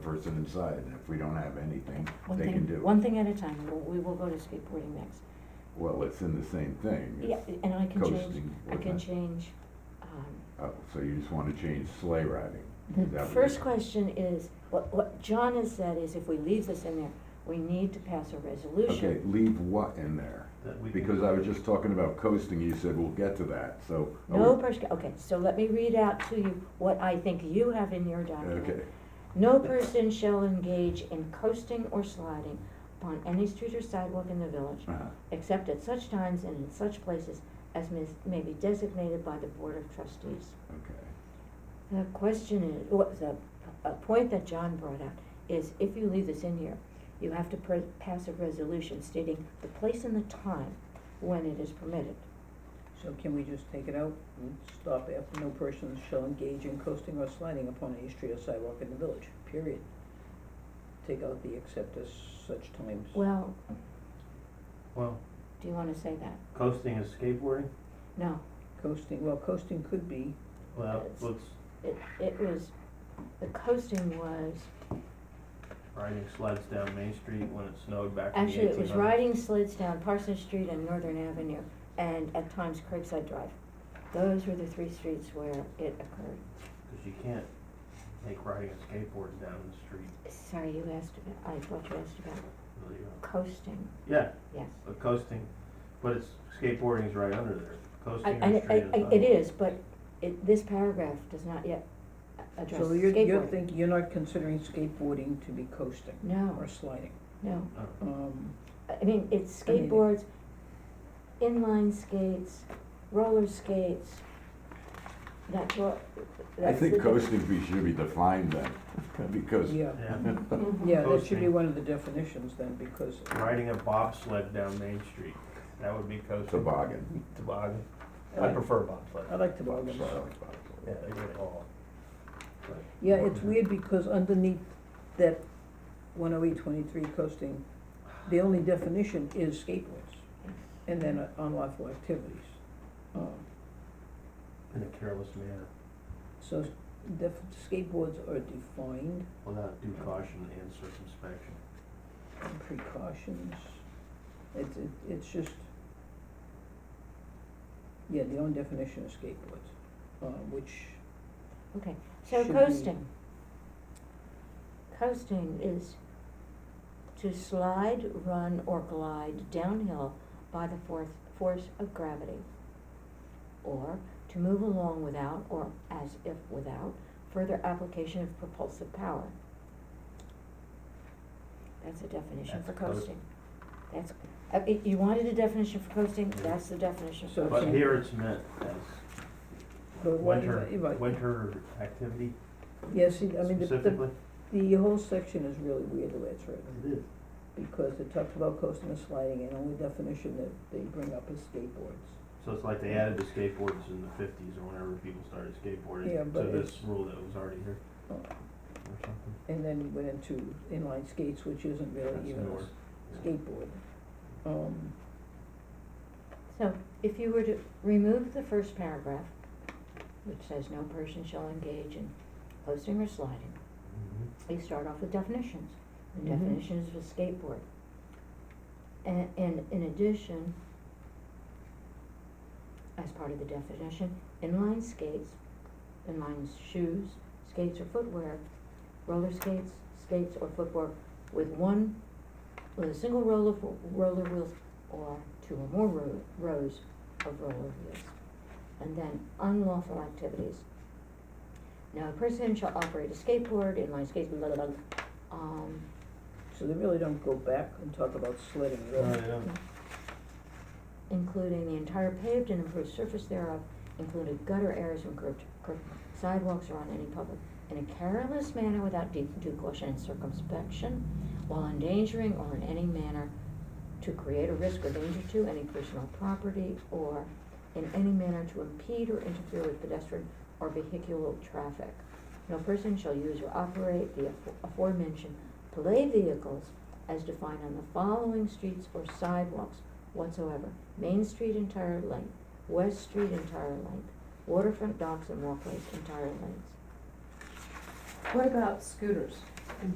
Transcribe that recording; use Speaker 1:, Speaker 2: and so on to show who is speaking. Speaker 1: person inside, and if we don't have anything,
Speaker 2: One
Speaker 1: they
Speaker 2: thing-
Speaker 1: can do. it.
Speaker 2: One thing at a time, We'll- we will go to skateboarding next.
Speaker 1: Well, it's in the same thing.
Speaker 2: Yeah,
Speaker 1: It's
Speaker 2: and I can change,
Speaker 1: coasting,
Speaker 2: I can
Speaker 1: whatnot.
Speaker 2: change, um,
Speaker 1: Oh, so you just wanna change sleigh riding? Is that
Speaker 2: The
Speaker 1: what
Speaker 2: first
Speaker 1: you're-
Speaker 2: question is, what, what John has said is if we leave this in there, we need to pass a
Speaker 1: Okay,
Speaker 2: resolution.
Speaker 1: leave what in there?
Speaker 3: That we can-
Speaker 1: Because I was just talking about coasting, you said we'll get to that, so. are
Speaker 2: No
Speaker 1: Oh, we-
Speaker 2: person, okay, so let me read out to you what I think you have in your document.
Speaker 1: Okay,
Speaker 2: No person shall engage in coasting or sliding upon any street or sidewalk in the village,
Speaker 1: uh-huh,
Speaker 2: except at such times and in such places as may, may be designated by the Board of Trustees.
Speaker 1: okay.
Speaker 2: The question is, what, the, a point that John brought out is if you leave this in here, you have to pre- pass a resolution stating the place and the time when it is permitted.
Speaker 4: So can we just take it out and stop after no person shall engage in coasting or sliding upon any street or sidewalk in the village, period? Take out the except as such times.
Speaker 2: Well,
Speaker 3: Well,
Speaker 2: do you wanna say that?
Speaker 3: coasting is skateboarding?
Speaker 2: No,
Speaker 4: Coasting, well, coasting could be,
Speaker 3: Well,
Speaker 2: It's-
Speaker 3: what's
Speaker 2: it, it was, the coasting was,
Speaker 3: riding sleds down Main Street when it snowed back in the
Speaker 2: actually, it was
Speaker 3: 1800s?
Speaker 2: riding sleds down Parsons Street and Northern Avenue, and at times Craigside Drive. Those were the three streets where it occurred.
Speaker 3: Cause you can't make riding a skateboard down the street,
Speaker 2: Sorry, you asked about, I thought you asked about
Speaker 3: really, uh,
Speaker 2: coasting,
Speaker 3: yeah,
Speaker 2: yes.
Speaker 3: but coasting, but it's, skateboarding's right under there,
Speaker 2: I,
Speaker 3: coasting
Speaker 2: I,
Speaker 3: or street is
Speaker 2: I- I-
Speaker 3: not.
Speaker 2: it is, but it, this paragraph does not yet a- address
Speaker 4: so you're, you're
Speaker 2: skateboarding.
Speaker 4: thinking, you're not considering skateboarding to be coasting
Speaker 2: No,
Speaker 4: or sliding.
Speaker 2: no,
Speaker 3: Oh,
Speaker 4: Um,
Speaker 2: I mean, it's
Speaker 4: I mean-
Speaker 2: skateboards, inline skates, roller skates, that's what,
Speaker 1: I
Speaker 2: that's the.
Speaker 1: think
Speaker 2: diff-
Speaker 1: coasting be- should be defined then, because.
Speaker 4: yeah,
Speaker 3: Yeah,
Speaker 2: Mhm.
Speaker 4: yeah, that should be
Speaker 3: Coasting.
Speaker 4: one of the definitions then, because.
Speaker 3: riding a bobsled down Main Street, that would be coasting.
Speaker 1: Toboggan.
Speaker 3: Toboggan,
Speaker 4: I
Speaker 3: I
Speaker 4: like-
Speaker 3: prefer bobsled,
Speaker 4: I like toboggan,
Speaker 1: Sorry.
Speaker 4: so.
Speaker 3: yeah, they get it all. But-
Speaker 4: Yeah, it's weird because underneath that one oh eight twenty-three coasting, the only definition is skateboards and then
Speaker 2: Mm-hmm.
Speaker 4: uh, unlawful activities. Um,
Speaker 3: In a careless manner,
Speaker 4: So def- skateboards are defined,
Speaker 3: without due caution and circumspection.
Speaker 4: and precautions, it's, it- it's just, yeah, the only definition is skateboards, uh, which
Speaker 2: Okay, so
Speaker 4: should be.
Speaker 2: coasting, coasting is to slide, run, or glide downhill by the force, force of gravity. Or to move along without, or as if without, further application of propulsive power. That's a definition
Speaker 3: That's
Speaker 2: for
Speaker 3: coast-
Speaker 2: coasting. That's, uh, i- you wanted a definition for coasting,
Speaker 3: Yeah.
Speaker 2: that's the definition
Speaker 4: So
Speaker 2: for
Speaker 3: But
Speaker 4: Okay.
Speaker 2: coasting.
Speaker 3: here it's meant as
Speaker 4: But why-
Speaker 3: winter,
Speaker 4: if I-
Speaker 3: winter activity
Speaker 4: Yeah, see, I mean, the, the,
Speaker 3: specifically?
Speaker 4: the whole section is really weird the way it's written.
Speaker 3: It is.
Speaker 4: because it talks about coasting and sliding, and only definition that they bring up is skateboards.
Speaker 3: So it's like they added the skateboards in the fifties or whenever people started
Speaker 4: Yeah,
Speaker 3: skateboarding
Speaker 4: but
Speaker 3: to this
Speaker 4: it's-
Speaker 3: rule that was already here
Speaker 4: Uh,
Speaker 3: or something.
Speaker 4: And then we went into inline skates, which isn't
Speaker 3: That's
Speaker 4: really even a
Speaker 3: newer.
Speaker 4: s- skateboard. Um,
Speaker 2: So if you were to remove the first paragraph, which says no person shall engage in coasting or sliding,
Speaker 3: Mhm.
Speaker 2: you start off with definitions. The
Speaker 4: Mhm.
Speaker 2: definitions of a skateboard. And, and in addition, as part of the definition, inline skates, inline shoes, skates or footwear, roller skates, skates or footwear with one, with a single roll of, roller wheels or two or more ro- rows of roller wheels. And then unlawful activities. Now, a person shall operate a skateboard, inline skates, blah, blah, blah, um,
Speaker 4: so they really don't go back and talk about sledding at all.
Speaker 3: No, they don't.
Speaker 2: including the entire paved and improved surface thereof, including gutter areas and curved, curved sidewalks or on any public, in a careless manner without due due caution and circumspection, while endangering or in any manner to create a risk or danger to any person or property, or in any manner to impede or interfere with pedestrian or vehicular traffic. No person shall use or operate the afo- aforementioned play vehicles as defined on the following streets or sidewalks whatsoever. Main Street entire length, West Street entire length, waterfront docks and walkways entire lengths.
Speaker 5: What about scooters and